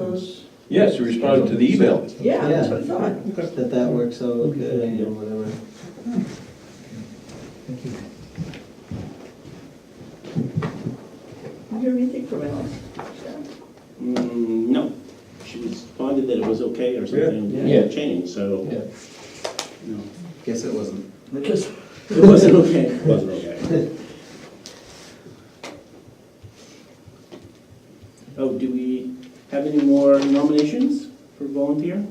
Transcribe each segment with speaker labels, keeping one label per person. Speaker 1: us?
Speaker 2: Yes, you responded to the email.
Speaker 1: Yeah, that's what I thought.
Speaker 3: that that works out good and whatever.
Speaker 1: Did you hear anything from Alice?
Speaker 4: Mm, No, she responded that it was okay or something,
Speaker 3: Yeah.
Speaker 4: yeah, changed, so,
Speaker 3: Yeah.
Speaker 4: no.
Speaker 3: Guess it wasn't.
Speaker 4: Because it wasn't okay. It wasn't okay. Oh, do we have any more nominations for volunteer?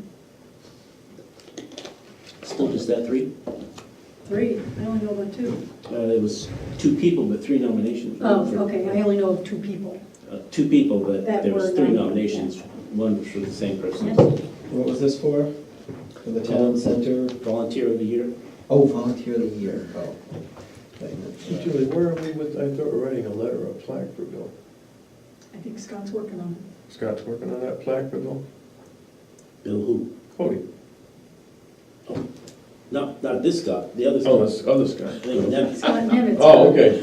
Speaker 4: Still just that three?
Speaker 5: Three, I only know about two.
Speaker 4: Uh, It was two people, but three nominations.
Speaker 5: Oh, okay, I only know of two people.
Speaker 4: Uh, Two people, but
Speaker 5: That
Speaker 4: there was
Speaker 5: were
Speaker 4: three
Speaker 5: nominated, yeah.
Speaker 4: nominations, one was for the same person.
Speaker 3: What was this for? For the town center?
Speaker 4: Volunteer of the year?
Speaker 3: Oh, volunteer of the year, oh. Wait a minute.
Speaker 2: Julie, where are we with, I thought we're writing a letter, a plaque for Bill.
Speaker 5: I think Scott's working on
Speaker 2: Scott's working on that plaque for Bill.
Speaker 4: Bill who?
Speaker 2: Cody.
Speaker 4: No, not this guy, the other
Speaker 2: Oh,
Speaker 4: guy.
Speaker 2: this other
Speaker 4: I think
Speaker 2: Scott.
Speaker 5: it.
Speaker 4: that-
Speaker 5: Scott Nemitz.
Speaker 2: Oh, okay.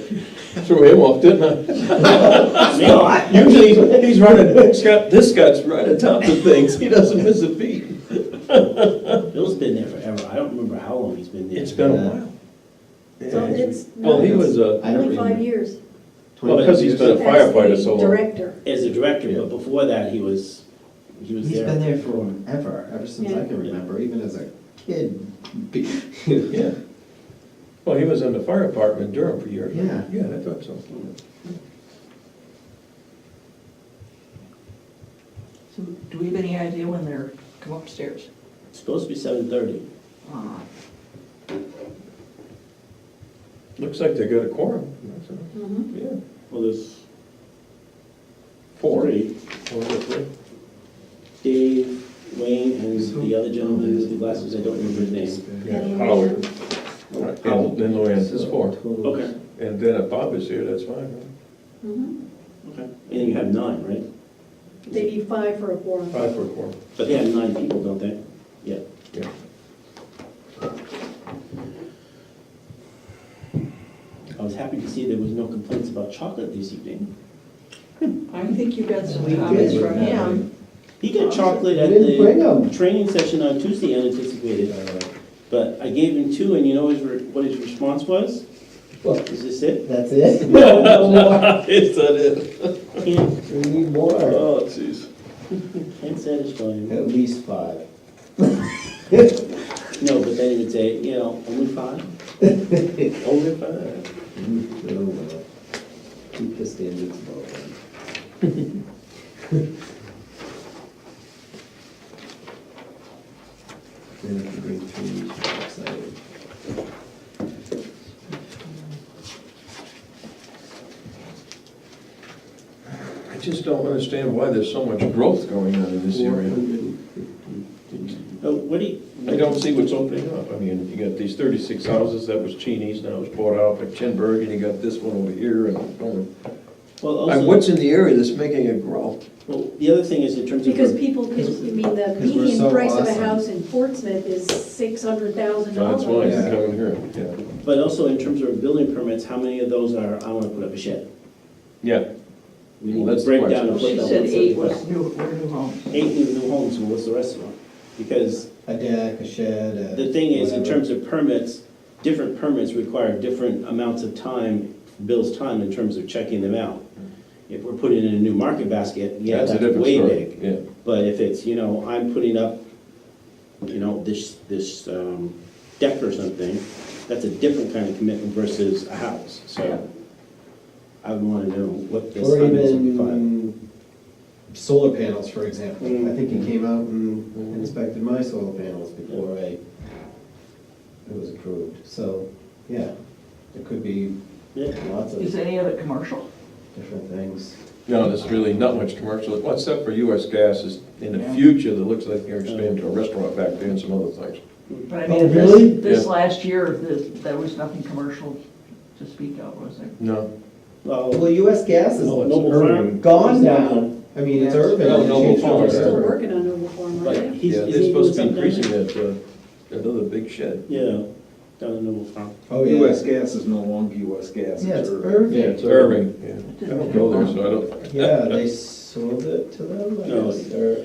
Speaker 2: Threw him off, didn't
Speaker 4: No,
Speaker 2: I?
Speaker 4: I-
Speaker 2: Usually, he's running, Scott, this Scott's right atop the things, he doesn't miss a beat.
Speaker 4: Bill's been there forever. I don't remember how long he's been there.
Speaker 2: It's been a while.
Speaker 5: So it's
Speaker 2: Well, he was a,
Speaker 3: I don't
Speaker 5: uh, only five
Speaker 3: remember.
Speaker 5: years.
Speaker 2: well, because he's been a
Speaker 5: That's the
Speaker 2: firefighter so long.
Speaker 5: Director.
Speaker 4: As a director, but before that, he was, he was
Speaker 3: He's been
Speaker 4: there.
Speaker 3: there forever, ever since I can remember, even as a kid. Be-
Speaker 2: Yeah. Well, he was in the fire department in Durham for years.
Speaker 3: Yeah.
Speaker 2: Yeah, I thought so.
Speaker 1: So do we have any idea when they're come upstairs?
Speaker 4: It's Supposed to be seven thirty.
Speaker 1: Ah,
Speaker 2: Looks like they got a quorum. That's all.
Speaker 5: Mhm.
Speaker 2: Yeah.
Speaker 4: Well, there's
Speaker 2: Four.
Speaker 4: three.
Speaker 2: Four, three.
Speaker 4: Dave, Wayne, and the other gentleman with the glasses, I don't remember his name.
Speaker 5: And
Speaker 2: Howard.
Speaker 5: Luann.
Speaker 2: And then Luann is four.
Speaker 4: Okay,
Speaker 2: And then if Bob is here, that's fine, right?
Speaker 5: Mhm.
Speaker 4: okay. And then you have nine, right?
Speaker 5: They need five for a quorum.
Speaker 2: Five for a quorum.
Speaker 4: But they have nine people, don't they? Yeah.
Speaker 2: Yeah.
Speaker 4: I was happy to see there was no complaints about chocolate this evening.
Speaker 1: I think you got some
Speaker 3: We
Speaker 1: comments
Speaker 3: did.
Speaker 1: from him.
Speaker 4: He got chocolate at
Speaker 3: You didn't bring
Speaker 4: the
Speaker 3: 'em.
Speaker 4: training session on Tuesday unanticipated. But I gave him two, and you know his re- what his response was?
Speaker 3: Well,
Speaker 4: Is this it?
Speaker 3: that's it? We
Speaker 2: It's not it.
Speaker 4: Can't,
Speaker 3: need more,
Speaker 2: Oh, jeez.
Speaker 4: can't satisfy him.
Speaker 3: at least five.
Speaker 4: No, but then he would say, you know, only five?
Speaker 2: Only five.
Speaker 3: Mm, Oh, well. Keep the standards low. then. Then if you bring three, you should be excited.
Speaker 2: I just don't understand why there's so much growth going on in this area.
Speaker 3: 450.
Speaker 4: Oh, what do you?
Speaker 2: I don't see what's opening up. I mean, you got these thirty-six houses, that was Cheney's, now it's bought out by Chinburg, and you got this one over here, and, going-
Speaker 4: Well,
Speaker 2: I-
Speaker 4: also,
Speaker 2: what's in the area that's making it grow?
Speaker 4: well, the other thing is in terms of.
Speaker 5: Because people, I mean, the
Speaker 3: we're
Speaker 5: median
Speaker 3: so
Speaker 5: price of a
Speaker 3: awesome.
Speaker 5: house in Portsmouth is six hundred thousand
Speaker 2: That's why
Speaker 5: dollars.
Speaker 2: it's coming here, yeah.
Speaker 4: But also in terms of building permits, how many of those are, I want to put up a shed?
Speaker 2: Yeah,
Speaker 4: We
Speaker 2: Well,
Speaker 4: need
Speaker 2: that's
Speaker 4: to
Speaker 2: the
Speaker 4: break
Speaker 2: question.
Speaker 4: down and break
Speaker 1: She
Speaker 4: down
Speaker 1: said
Speaker 4: what's
Speaker 1: eight
Speaker 4: up.
Speaker 1: was new, were new homes.
Speaker 4: Eight new new homes, and what's the rest of them? Because
Speaker 3: A deck, a shed, a.
Speaker 4: the thing is, in
Speaker 3: whatever.
Speaker 4: terms of permits, different permits require different amounts of time, Bill's time in terms of checking them out. If we're putting in a new market basket, yeah,
Speaker 2: that's a
Speaker 4: that's
Speaker 2: different
Speaker 4: way
Speaker 2: story,
Speaker 4: big.
Speaker 2: yeah.
Speaker 4: But if it's, you know, I'm putting up, you know, this, this um, deck or something, that's a different kind of commitment versus a house, so I would wanna know what this
Speaker 3: Or
Speaker 4: time is in five.
Speaker 3: even solar panels, for example.
Speaker 4: Mm.
Speaker 3: I think he came out and inspected my solar panels before I, it was approved. So, yeah, there could be
Speaker 4: Yeah.
Speaker 3: lots
Speaker 1: Is
Speaker 3: of
Speaker 1: any of it commercial?
Speaker 3: different things.
Speaker 2: No, there's really not much commercial, well, except for US Gas is, in the
Speaker 1: Yeah.
Speaker 2: future, that looks like they're expanding to a restaurant back there and some other things.
Speaker 1: But I
Speaker 3: Oh,
Speaker 1: mean,
Speaker 3: really?
Speaker 1: this, this
Speaker 2: Yeah.
Speaker 1: last year, this, there was nothing commercial to speak of, was there?
Speaker 2: No.
Speaker 4: Well,
Speaker 3: Well, US Gas is
Speaker 4: Noble Farm.
Speaker 3: gone now. I mean, it's
Speaker 1: Yeah.
Speaker 3: urban.
Speaker 2: Oh, No,
Speaker 3: It
Speaker 2: Noble
Speaker 3: changed
Speaker 2: Farm
Speaker 3: over.
Speaker 5: They're still
Speaker 2: Farm.
Speaker 5: working on Noble Farm,
Speaker 4: Right.
Speaker 5: aren't they?
Speaker 4: He's-
Speaker 2: Yeah,
Speaker 4: is
Speaker 2: they're
Speaker 4: he
Speaker 2: supposed to be
Speaker 4: doing something?
Speaker 2: increasing that, uh, another big shed.
Speaker 4: yeah, down in Noble Farm.
Speaker 3: Oh, yeah.
Speaker 6: US gas is no longer US gas.
Speaker 3: Yeah, it's
Speaker 2: Yeah,
Speaker 3: Irving.
Speaker 2: it's Irving, yeah. I don't go there, so I don't.
Speaker 3: Yeah, they sold it to them, I
Speaker 4: No,
Speaker 3: guess, or.